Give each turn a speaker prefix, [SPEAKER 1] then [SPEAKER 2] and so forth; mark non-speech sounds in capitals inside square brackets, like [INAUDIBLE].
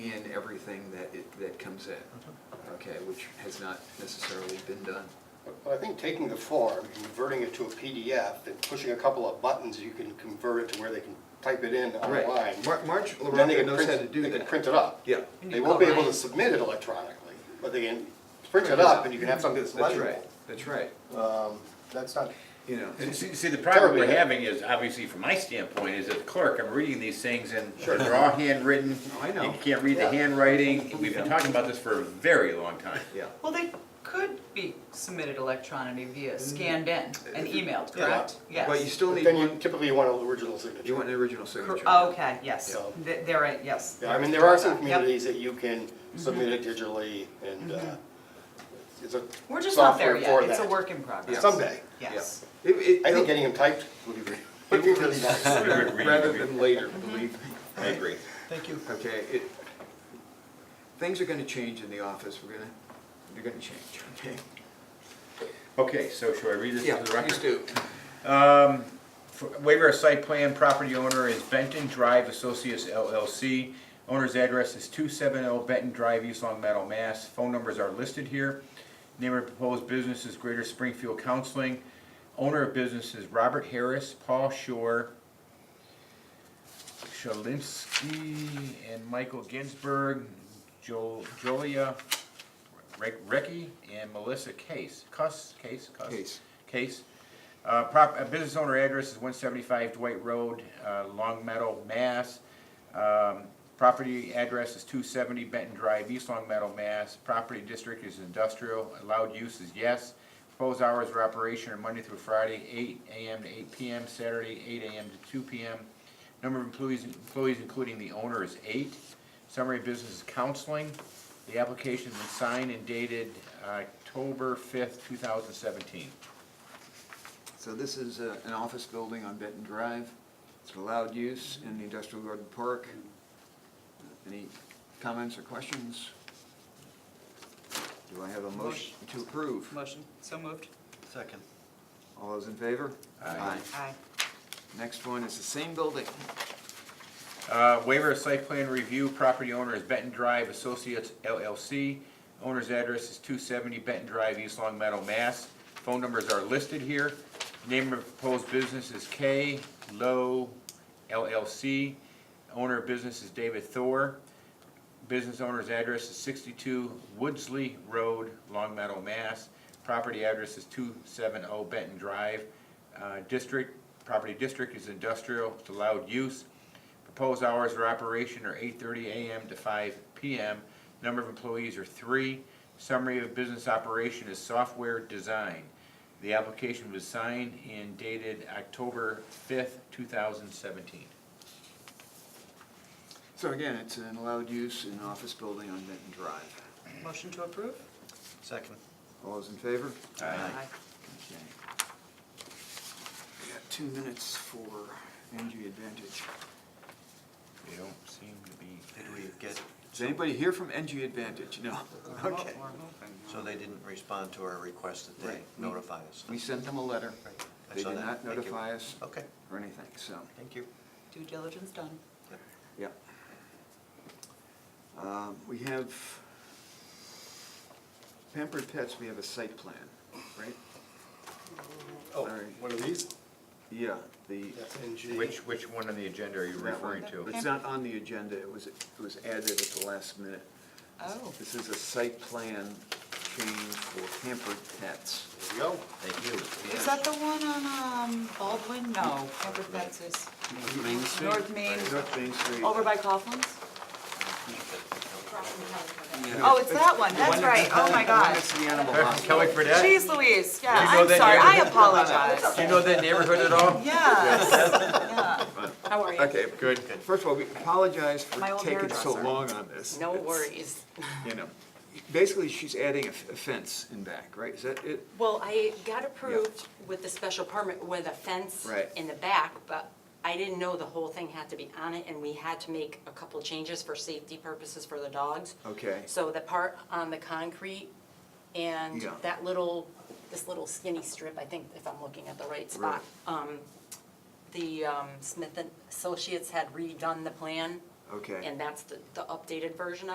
[SPEAKER 1] everything that it, that comes in, okay, which has not necessarily been done.
[SPEAKER 2] But- But I think taking the form, converting it to a PDF, and pushing a couple of buttons, you can convert it to where they can type it in
[SPEAKER 1] Right.
[SPEAKER 2] online.
[SPEAKER 1] Mar- Marge
[SPEAKER 2] Then they
[SPEAKER 1] LaRocca
[SPEAKER 2] can
[SPEAKER 1] knows how
[SPEAKER 2] print-
[SPEAKER 1] to do
[SPEAKER 2] They
[SPEAKER 1] that.
[SPEAKER 2] can print it up.
[SPEAKER 1] Yeah.
[SPEAKER 2] They won't be able to submit it electronically, but they can print it up, and you can have something that's
[SPEAKER 1] That's
[SPEAKER 2] legible.
[SPEAKER 1] right, that's right, Um,
[SPEAKER 2] That's not,
[SPEAKER 1] you know.
[SPEAKER 3] See- See, see, the problem we're
[SPEAKER 2] Terribly.
[SPEAKER 3] having is, obviously from my standpoint, is as a clerk, I'm reading these things and
[SPEAKER 2] Sure.
[SPEAKER 3] they're all handwritten.
[SPEAKER 1] I know.
[SPEAKER 3] You can't read the
[SPEAKER 2] Yeah.
[SPEAKER 3] handwriting. We've been talking about this for a very long time.
[SPEAKER 1] Yeah.
[SPEAKER 4] Well, they could be submitted electronically via scanned in and emailed,
[SPEAKER 1] Mm. Yeah.
[SPEAKER 4] correct?
[SPEAKER 1] But you
[SPEAKER 4] Yes.
[SPEAKER 1] still
[SPEAKER 2] but
[SPEAKER 1] need
[SPEAKER 2] then you
[SPEAKER 1] one,
[SPEAKER 2] typically you want an original signature.
[SPEAKER 1] you want an original
[SPEAKER 4] Cor- oh,
[SPEAKER 1] signature.
[SPEAKER 4] Okay, yes,
[SPEAKER 2] So-
[SPEAKER 4] Th- there, I- yes.
[SPEAKER 2] Yeah, I mean, there are some communities that you can submit it digitally, and uh, it's a
[SPEAKER 4] We're just not there
[SPEAKER 2] software for
[SPEAKER 4] yet, it's a
[SPEAKER 2] that.
[SPEAKER 4] work in progress.
[SPEAKER 2] Someday.
[SPEAKER 1] Yeah.
[SPEAKER 4] Yes.
[SPEAKER 1] It, it.
[SPEAKER 2] I think getting them typed would be really- would [LAUGHS] be really nice.
[SPEAKER 1] Sooner
[SPEAKER 3] Read,
[SPEAKER 1] Rather
[SPEAKER 3] read.
[SPEAKER 1] than later,
[SPEAKER 4] Mm-hmm.
[SPEAKER 1] believe me.
[SPEAKER 3] I agree.
[SPEAKER 5] Thank you.
[SPEAKER 1] Okay, it, things are gonna change in the office, we're gonna, they're gonna change, okay?
[SPEAKER 3] Okay, so should I read this to the record?
[SPEAKER 1] do.
[SPEAKER 3] For- Waiver of site plan, property owner is Benton Drive Associates LLC. Owner's address is 270 Benton Drive, East Long Meadow, Mass. Phone numbers are listed here. Name of proposed business is Greater Springfield Counseling. Owner of business is Robert Harris, Paul Shore, Shalinsky, and Michael Ginsberg, Jo- Jolia Rec- Recchi, and Melissa Case. Cuss, Case, Cuss?
[SPEAKER 1] Case.
[SPEAKER 3] Case. Uh, prop, uh, business owner address is one seventy-five Dwight Road, uh, Long Meadow, Mass. Um, property address is two seventy Benton Drive, East Long Meadow, Mass. Property district is industrial, allowed use is yes. Proposed hours of operation are Monday through Friday, eight AM to eight PM, Saturday, eight AM to two PM. Number of employees, employees including the owner is eight. Summary of business is counseling. The application was signed and dated uh, October fifth, two thousand seventeen.
[SPEAKER 1] So this is uh, an office building on Benton Drive. It's allowed use in the industrial garden park. Any comments or questions? Do I have a motion to approve?
[SPEAKER 4] Motion, so moved.
[SPEAKER 5] Second.
[SPEAKER 1] All those in favor?
[SPEAKER 3] Aye.
[SPEAKER 4] Aye.
[SPEAKER 1] Next one is the same building.
[SPEAKER 3] Uh, Waiver of site plan review, property owner is Benton Drive Associates LLC. Owner's address is 270 Benton Drive, East Long Meadow, Mass. Phone numbers are listed here. Name of proposed business is K Low LLC. Owner of business is David Thor. Business owner's address is 62 Woodsley Road, Long Meadow, Mass. Property address is 270 Benton Drive. Uh, District, property district is industrial, it's allowed use. Proposed hours of operation are 8:30 a.m. to 5 p.m. Number of employees are three. Summary of business operation is software design. The application was signed and dated October 5th, 2017.
[SPEAKER 1] So again, it's an allowed use in an office building on Benton Drive.
[SPEAKER 4] Motion to approve?
[SPEAKER 5] Second.
[SPEAKER 1] All those in favor?
[SPEAKER 4] Aye.
[SPEAKER 1] Okay. We got two minutes for NG Advantage.
[SPEAKER 3] They don't seem to be,
[SPEAKER 5] Did we get,
[SPEAKER 1] Is anybody here from NG Advantage? No.
[SPEAKER 4] We're
[SPEAKER 1] Okay.
[SPEAKER 4] hoping, uh,
[SPEAKER 5] so they didn't respond to our request that they
[SPEAKER 1] Right.
[SPEAKER 5] notify us?
[SPEAKER 1] We sent them a letter.
[SPEAKER 5] Right. I
[SPEAKER 1] They
[SPEAKER 5] saw
[SPEAKER 1] did
[SPEAKER 5] that.
[SPEAKER 1] not
[SPEAKER 5] Thank you.
[SPEAKER 1] notify us
[SPEAKER 5] Okay,
[SPEAKER 1] or anything, so,
[SPEAKER 5] thank you.
[SPEAKER 4] Due diligence done.
[SPEAKER 5] Yep.
[SPEAKER 1] yeah. Um, We have Pampered Pets, we have a site plan, right?
[SPEAKER 2] Oh,
[SPEAKER 1] Alright.
[SPEAKER 2] one of these?
[SPEAKER 1] Yeah, the,
[SPEAKER 2] That's NG.
[SPEAKER 3] which, which one on the agenda are you
[SPEAKER 1] that one.
[SPEAKER 3] referring to?
[SPEAKER 1] It's not on the agenda, it was, it was added at the last minute.
[SPEAKER 4] Oh,
[SPEAKER 1] This is a site plan change for Pampered Pets.
[SPEAKER 2] There we go.
[SPEAKER 5] Thank you.
[SPEAKER 4] is that the one on um, Baldwin? No, Pepper Pets is North Main,
[SPEAKER 1] North Main Street.
[SPEAKER 4] over by Coughlin's?
[SPEAKER 1] Yeah.
[SPEAKER 4] Oh, it's that one, that's right, oh my
[SPEAKER 1] One
[SPEAKER 4] gosh.
[SPEAKER 1] that's the animal
[SPEAKER 3] That's
[SPEAKER 1] hospital.
[SPEAKER 3] Kelly Fredette?
[SPEAKER 4] Jeez Louise, yeah,
[SPEAKER 3] You know
[SPEAKER 4] I'm
[SPEAKER 3] that
[SPEAKER 4] sorry, I
[SPEAKER 3] neighborhood?
[SPEAKER 4] apologize.
[SPEAKER 3] Do you know that neighborhood at all?
[SPEAKER 4] Yes,
[SPEAKER 3] [LAUGHS]
[SPEAKER 4] yeah. How are you?
[SPEAKER 1] Okay, good. First of all, we apologize for
[SPEAKER 4] My old
[SPEAKER 1] taking so
[SPEAKER 4] hairdresser.
[SPEAKER 1] long on this.
[SPEAKER 6] No
[SPEAKER 1] It's,
[SPEAKER 6] worries.
[SPEAKER 1] You know, basically, she's adding a f- a fence in back, right? Is that it?
[SPEAKER 6] Well, I got approved with the special permit with a fence
[SPEAKER 1] Right.
[SPEAKER 6] in the back, but I didn't know the whole thing had to be on it, and we had to make a couple changes for safety purposes for the dogs.
[SPEAKER 1] Okay.
[SPEAKER 6] So the part on the concrete and
[SPEAKER 1] Yeah.
[SPEAKER 6] that little, this little skinny strip, I think if I'm looking at the right spot. um, The um, Smith and Associates had redone the plan,
[SPEAKER 1] Okay.
[SPEAKER 6] and that's the the updated version of.